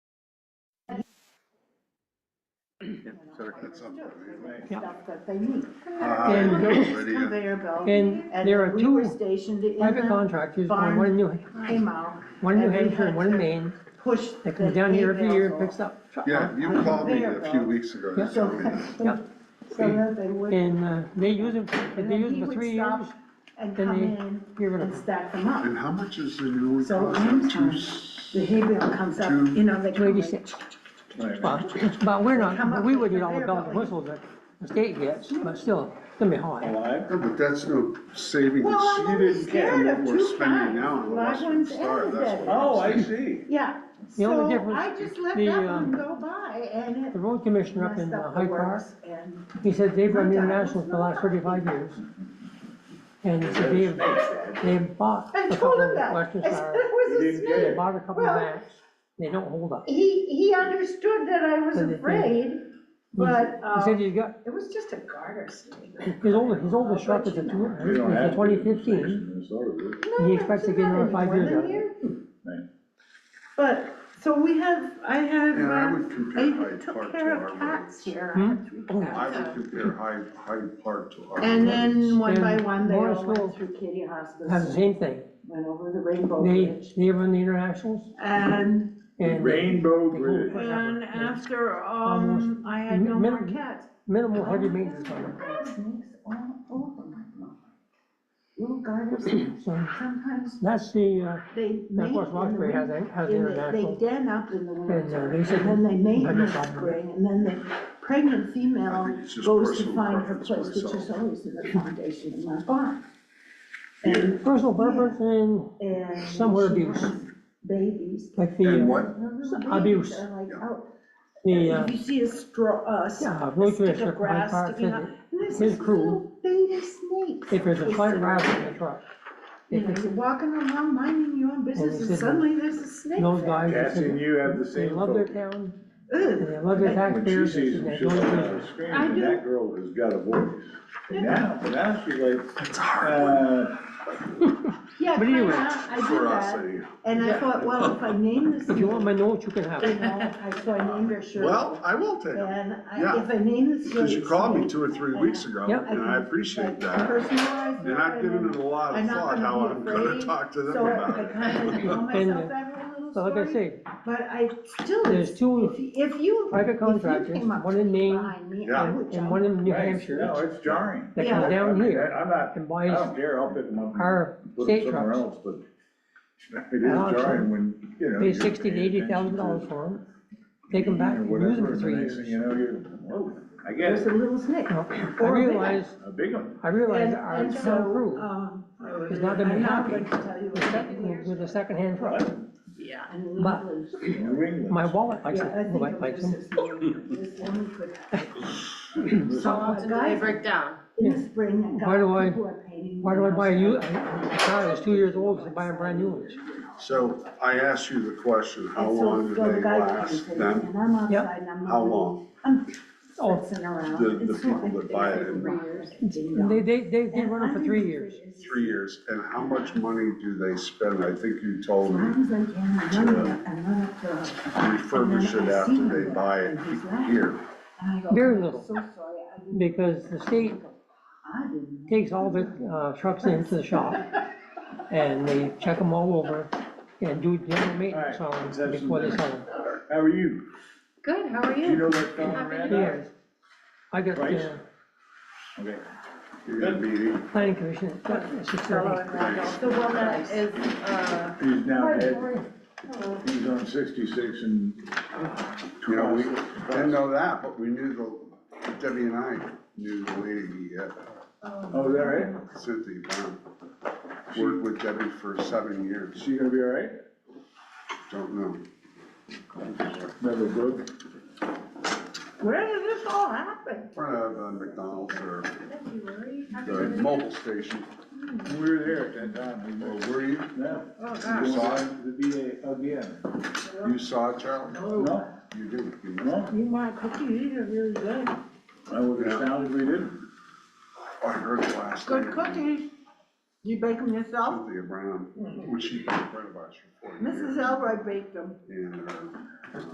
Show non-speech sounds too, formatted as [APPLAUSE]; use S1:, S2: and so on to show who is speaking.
S1: better get something.
S2: Yeah.
S3: stuff that they need.
S1: Hi,
S2: And those-
S1: Lydia.
S3: Conveyor belt.
S2: And
S3: And
S2: there are
S3: we were
S2: two
S3: stationed in
S2: private
S3: the
S2: contractors,
S3: barn.
S2: one one in New,
S3: Haymow.
S2: one in New
S3: and we
S2: Hampshire and
S3: had
S2: one in
S3: to
S2: Maine,
S3: Push.
S2: that comes
S3: the
S2: down here every
S3: hay
S2: year,
S3: bales [LAUGHS]
S2: picks up. truck-
S1: Yeah, you called me a few weeks ago.
S2: Yeah.
S1: to tell me that.
S3: off.
S2: Yeah.
S3: So that they would.
S2: And, uh, they use them, if
S3: and
S2: they
S3: then
S2: use
S3: he
S2: them for
S3: would
S2: three
S3: stop
S2: years,
S3: And
S2: then
S3: come
S2: they
S3: in
S2: get rid of
S3: and
S2: them.
S3: stack them up.
S1: And how much is the new one
S3: So
S1: cost?
S3: one
S1: Two
S3: time,
S1: s-
S3: the hay bale comes up,
S1: Two-
S3: you know, they come
S2: maybe
S3: in.
S2: six. Well, but we're
S3: Come
S2: not,
S3: up
S2: we
S3: with
S2: would get all the
S3: conveyor
S2: bells and
S3: belts.
S2: whistles that the state gets, but still, it's gonna be high.
S4: Alive?
S1: Yeah, But that's no savings.
S3: Well, I'm
S1: You
S3: only
S1: didn't get
S3: scared
S1: what
S3: of
S1: we're
S3: two
S1: spending
S3: kinds.
S1: now on the
S3: Live
S1: Western
S3: ones
S1: Star,
S3: and
S1: that's
S3: dead.
S1: what. I'm
S4: Oh, I
S1: saying.
S4: see.
S3: Yeah,
S2: The only
S3: so
S2: difference-
S3: I just let
S2: the,
S3: that
S2: um,
S3: one go by and it
S2: The road commissioner up in
S3: messed
S2: uh,
S3: up the
S2: Hyde Park,
S3: works and.
S2: he said they've run international for the last thirty-five years. And he said they have, they have bought
S3: I
S2: a
S3: told
S2: couple
S3: him
S2: of
S3: that, I
S2: Western
S3: said, it
S2: Star,
S3: was a
S4: didn't get
S2: they
S3: snake.
S4: it.
S2: bought a couple
S3: Well-
S2: of maps, they don't hold up.
S3: He, he understood that I was
S2: But the thing-
S3: afraid, but,
S2: He said
S3: um,
S2: he's got,
S3: it was just a garter snake.
S2: his oldest, his oldest truck is a
S4: We don't have to.
S2: twenty fifteen,
S3: No,
S2: He expects to
S3: it's
S2: get
S3: not
S2: another five
S3: anymore
S2: years
S3: than
S2: out of it.
S3: here.
S4: Right.
S3: But, so we have, I have,
S1: And I
S3: uh,
S1: would compare
S3: I
S1: Hyde Park
S3: took
S1: to
S3: care of
S1: our
S3: cats
S1: roads.
S3: here, I
S2: Hmm?
S3: had three
S2: Oh,
S1: I
S3: cats.
S1: would compare Hyde, Hyde Park to our roads.
S3: And then one by
S2: And
S3: one, they
S2: Morris
S3: all went
S2: Grove
S3: through Kitty
S2: has the
S3: Hospice,
S2: same thing,
S3: went over the Rainbow
S2: they,
S3: Bridge.
S2: they run the internationals
S3: And,
S2: and
S4: Rainbow Bridge.
S3: and after, um,
S2: Almost.
S3: I had no more
S2: Minimum.
S3: cats.
S2: minimal heavy maintenance on it.
S3: Snakes all over my lawn. Little garter snakes,
S2: So
S3: sometimes
S2: that's the, uh,
S3: they mate
S2: Now, Of
S3: in
S2: course,
S3: the
S2: Roxbury has
S3: winter.
S2: a, has
S3: in the- They
S2: international. uh,
S3: den up in the winter,
S2: they
S3: and
S2: said-
S3: then they mate
S2: I
S3: in
S2: know
S3: the
S2: something.
S3: spring, and then the pregnant
S1: I
S3: female
S1: think it's just
S3: goes to
S1: personal
S3: find her
S1: preference
S3: place, which is
S1: myself.
S3: always in the foundation in my barn. And,
S2: Personal preference and
S3: and.
S2: Somewhere
S3: she
S2: abuse.
S3: has Babies.
S2: like the,
S1: And
S2: uh,
S1: what,
S3: Little
S2: Abuse.
S3: babies are like out.
S2: the, uh,
S3: You see a straw, uh, s-
S2: yeah,
S3: a
S2: road
S3: stick
S2: commissioner
S3: of
S2: for Hyde
S3: grass
S2: Park
S3: sticking
S2: said
S3: out,
S2: that
S3: and there's
S2: his
S3: this
S2: crew,
S3: little baby snake.
S2: if there's a slight
S3: twisted
S2: rattle in
S3: around.
S2: the truck,
S3: You know, you're walking around minding your own business,
S2: they
S3: and
S2: said
S3: suddenly there's a snake
S2: those
S3: there.
S2: guys, they
S4: Cats and
S2: said
S4: you have the
S2: they
S4: same
S2: love their
S4: focus.
S2: town, and
S3: Ugh.
S2: they love their
S4: When she
S2: taxpayers,
S4: sees
S2: and
S4: them,
S2: they
S4: she'll
S2: don't
S4: uh,
S2: do
S4: scream,
S3: I
S4: and
S3: do.
S4: that girl has got a voice. And Now, but now she's like,
S1: it's hard
S4: uh,
S3: Yeah,
S2: But
S3: kinda,
S2: anyway.
S3: I
S1: for us,
S3: did that,
S1: anyway.
S3: and I thought, well, if I
S2: [LAUGHS]
S3: name this
S2: If you want my
S3: snake,
S2: notes, you can
S3: [LAUGHS]
S2: have
S3: you
S2: it.
S3: know, I, so I named her Shirley.
S1: Well, I will take it,
S3: And I,
S1: yeah,
S3: if I name this
S1: because you
S3: snake
S1: called me
S3: snake,
S1: two or three
S3: and
S1: weeks
S3: I-
S1: ago,
S2: Yep.
S1: and I appreciate
S3: I
S1: that.
S3: personalized
S1: And I've
S3: it,
S1: given
S3: and
S1: it a lot
S3: I'm
S1: of
S3: not
S1: thought,
S3: gonna
S1: how
S3: be
S1: I'm gonna
S3: afraid,
S1: talk to them
S3: So
S1: about
S3: I
S1: it.
S3: kind of tell
S2: And, uh,
S3: myself that little
S2: So like I
S3: story,
S2: say,
S3: but I still,
S2: there's
S3: if,
S2: two
S3: if you, if
S2: private
S3: you
S2: contractors,
S3: came up
S2: one in Maine
S3: behind me, I
S1: Yeah.
S3: would
S2: and and
S3: jump.
S2: one in New
S4: right, no,
S2: Hampshire,
S4: it's jarring.
S2: that
S3: Yeah.
S2: comes
S4: I
S2: down
S4: mean,
S2: here
S4: I'm not,
S2: and
S4: I
S2: buys
S4: don't care, I'll pick them up and
S2: our
S4: put them
S2: state
S4: somewhere
S2: trucks,
S4: else, but [LAUGHS] it is
S2: I'll
S4: jarring when, you know.
S2: pay
S4: you're
S2: sixty to
S4: paying
S2: eighty thousand dollars
S4: attention to
S2: for them, take them back, and use them for
S4: Whatever, and the
S2: three
S4: next thing you
S2: years.
S4: know, you're, whoa, I
S3: There's
S4: guess,
S3: a little snake.
S2: Now, I
S3: Or a big one.
S2: realize,
S4: a big one.
S2: I realize
S3: And,
S2: our
S3: and
S2: town
S3: so,
S2: crew
S3: um.
S2: is not gonna be
S3: I'm not
S2: happy
S3: going to tell you
S2: with
S3: what
S2: second-
S3: happened.
S2: with a secondhand truck.
S3: Yeah.
S2: But- [LAUGHS]
S4: New England.
S2: My wallet likes
S3: Yeah, I
S2: it,
S3: think
S2: like-
S3: it
S2: likes
S3: was
S2: them.
S3: this woman,
S2: [LAUGHS]
S3: this woman could
S1: [CLEARS THROAT]
S5: How often do they break down?
S3: in the spring and
S2: Why do I-
S3: people are painting.
S2: Why do I
S3: their
S2: buy a
S3: house
S2: u- a
S3: up.
S2: a car that's two years old, I buy a brand new one?
S1: So I asked you the question, how
S3: And so-
S1: long do
S3: so the
S1: they
S3: guy
S1: last,
S3: comes in
S1: then
S3: And I'm
S2: Yep.
S3: outside and I'm.
S1: How
S3: looking,
S1: long?
S3: I'm
S2: Oh.
S3: fussing around.
S1: the, the
S3: It's not
S1: people
S3: like
S1: that buy it
S3: they're
S1: in
S5: Three years.
S3: ding
S2: And
S3: dong.
S2: They, they, they, they
S3: And
S2: run them for three years.
S3: underneath it is-
S1: three years, and how much money do they spend? I think you
S3: As
S1: told me
S3: long as I can, I run it up, I run up to. her.
S1: refurbish it after they buy it here.
S3: And I go,
S2: Very
S3: "I'm
S2: little.
S3: So sorry, I didn't.
S2: Because the state
S3: I didn't. know."
S2: takes all the, uh, trucks into
S3: [LAUGHS]
S2: the shop and they check them all over and do general maintenance on them before they sell them.
S4: How are you?
S5: Good, how are
S4: Do you
S5: you?
S4: know that phone
S5: Happy
S4: ran
S5: to
S4: out?
S2: Yes. I got
S4: Price?
S2: the
S4: Okay.
S1: You're gonna be,
S2: planning commission, it's got six thirty.
S5: The one that is, uh,
S4: He's now dead. He's on sixty-six and.
S1: you know, we uh, didn't know that, but we knew the, Debbie and I knew the lady, uh,
S4: Oh, is that right?
S1: Cynthia Brown. Worked with Debbie for seven years,
S4: She gonna be all right?
S1: don't know.
S4: Never broke.
S3: Where did this all happen?
S1: In Front of uh, McDonald's or the mobile station,
S4: We were there at that time.
S1: or were you?
S4: No.
S5: oh
S1: You
S5: gosh,
S1: saw it,
S4: The VA again.
S1: you saw it, Charlie?
S4: No,
S1: You didn't, you must-
S4: no,
S3: Oh, You my cookies, these are really good.
S4: I would have sounded we didn't.
S1: I heard it last night.
S3: Good cookies. You bake them yourself?
S1: Cynthia Brown, when she was in front of us for forty years.
S3: Mrs. Elroy baked them.
S1: And, uh,